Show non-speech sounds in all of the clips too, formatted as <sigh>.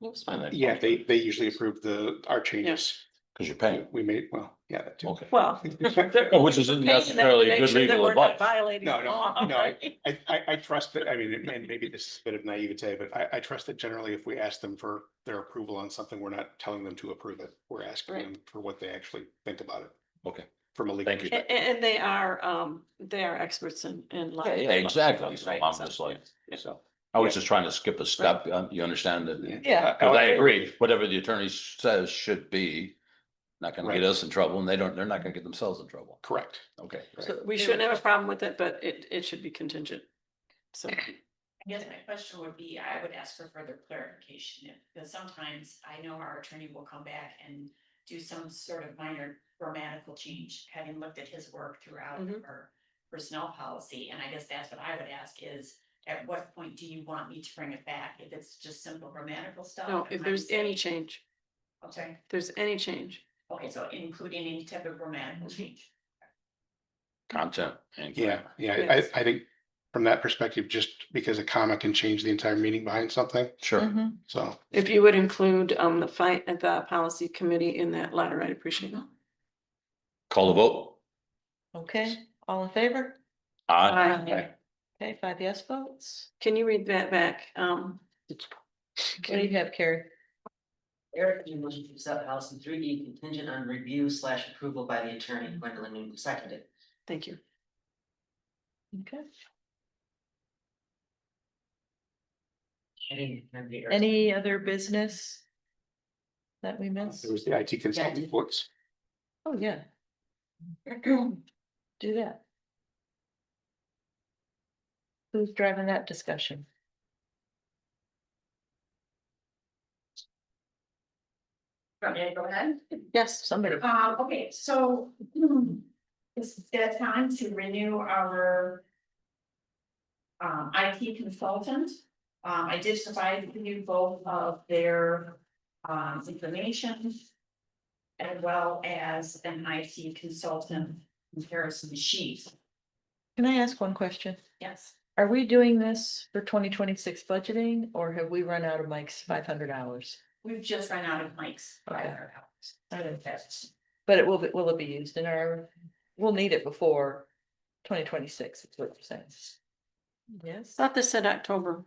It's fine. that Yeah, comes they, with- they usually approve the, our changes. Cause you're paying, We made, well, yeah, that too. okay. Well. they're- No, Which isn't paying them to necessarily make good sure that legal we're not advice. Violating No, the no, law, no, right? I, I, I trust that, I mean, and maybe this is a bit of naivete, but I, I trust that generally if we ask them for their approval on something, we're not telling them to approve it. We're asking Right. them for what they actually think about it. Okay. From a legal Thank you. A- a- perspective. And, they are, um, they are experts in, in. law- Yeah, yeah, exactly. So Right, I'm so- just like, yeah. so, I was Yeah. just trying to skip a step, um, you understand that? Yeah. Oh, Cause Uh, I agree, whatever the attorney says should be, not gonna Right. get us in trouble and they don't, they're not gonna get themselves in trouble. Correct. Okay. Right. So we shouldn't have a problem with it, but it, it should be contingent. So, I guess my question would be, I would ask for further clarification, if- because sometimes I know our attorney will come back and do some sort of minor grammatical change, having looked at his work throughout Mhm. our personnel policy, and I guess that's what I would ask is, at what point do you want me to bring it back? If it's just simple grammatical stuff? no, I if might there's say- any change, I'm sorry, if there's any change, okay, so including any type of grammatical change. Mm-hmm. Content and. Yeah, yeah, Yes. I, I think from that perspective, just because a comma can change the entire meaning behind something, Sure. so. if you would include, um, the fight at the policy committee in that letter, I'd appreciate it. Call the vote. Okay, all in favor? Aye. Aye. Okay, five yes votes. Can you read that back? Um, What do you have, Carrie? Eric, you motion to accept policy three E contingent on review slash approval by the attorney Gwendolyn Newton seconded. thank you. Okay. I didn't have the- Any other business? That we missed? There was the IT consultant voice. Oh, yeah. Mm-hmm. Do that. Who's driving that discussion? Okay, go ahead. Yes, Uh, somebody. Um, okay, so <clears throat> hmm, it's that time to renew our um, IT consultant. Um, I did provide you both of their um, information as well as an IT consultant comparison sheet. Can I ask one question? Yes. Are we doing this for twenty twenty-six budgeting or have we run out of Mike's five hundred hours? We've just run out of mics. Okay. I didn't- That's- But it will, be will it be used in our, we'll need it before twenty twenty-six, is what you're saying. Yes. Thought this said October.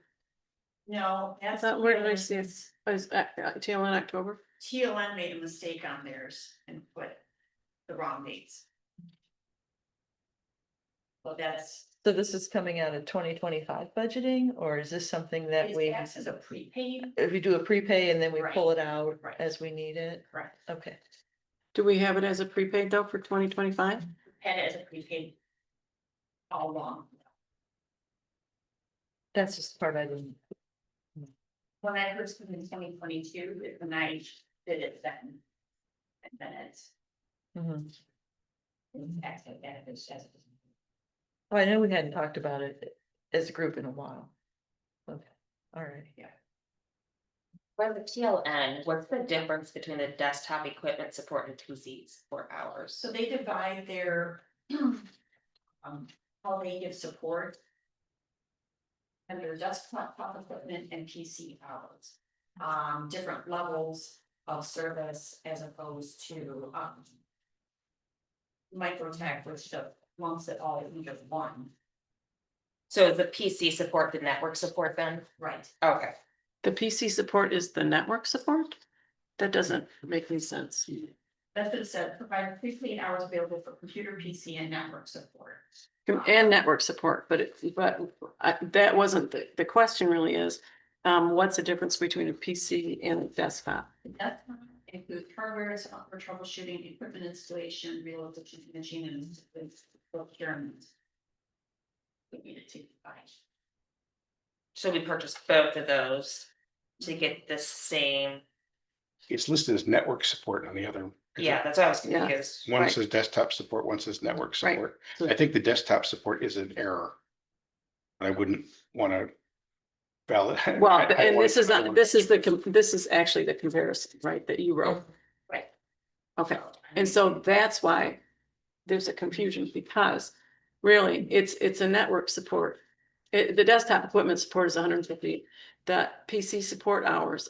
No, I that's. thought, where did I see it? Was, uh, uh, tail in October? TLN made a mistake on theirs and put the wrong dates. Well, that's, So this is coming out of twenty twenty-five budgeting, or is this something that is we, tax is a prepaid, if we do a prepay and then we Right. pull it out Right. as we need it? correct, Okay, Do we have it as a prepaid though for twenty twenty-five? had it as a prepaid all along. that's just the part I didn't, When I first came in twenty twenty-two, is when I did it then. And then it's, Mhm. it's actually benefits as. well, mm-hmm. Oh, I know we hadn't talked about it as a group in a while. Okay, all right. For the TLN, what's the difference between the desktop equipment support and TCs for hours? So they divide their <clears throat> um, how they give support under desktop equipment and PC hours. Um, different levels of service as opposed to, um, microtech, which the lumps it all into one, So is the PC support the network support then? right? Okay. The PC support is the network support? That doesn't make any sense. That's what it said, provide fifteen hours available for computer, PC and network support. And network support, but it, but I- that wasn't, the, the question really is, um, what's the difference between a PC and a desktop? That's include hardware, software troubleshooting, equipment installation, relocation, machine and procurement. We needed to provide. So we purchased both of those to get the same, It's listed as network support on the other. yeah, that's what I was Yeah. confused. One Right. says desktop support, one says network Right. support. So- I think the desktop support is an error. I wouldn't want to valid. <laughs> Well, and this is, not- this is the, com- this is actually the comparison, right, that you wrote? Right. Okay, and so that's why there's a confusion because really, it's, it's a network support. It, the desktop equipment support is hundred and fifty, the PC support hours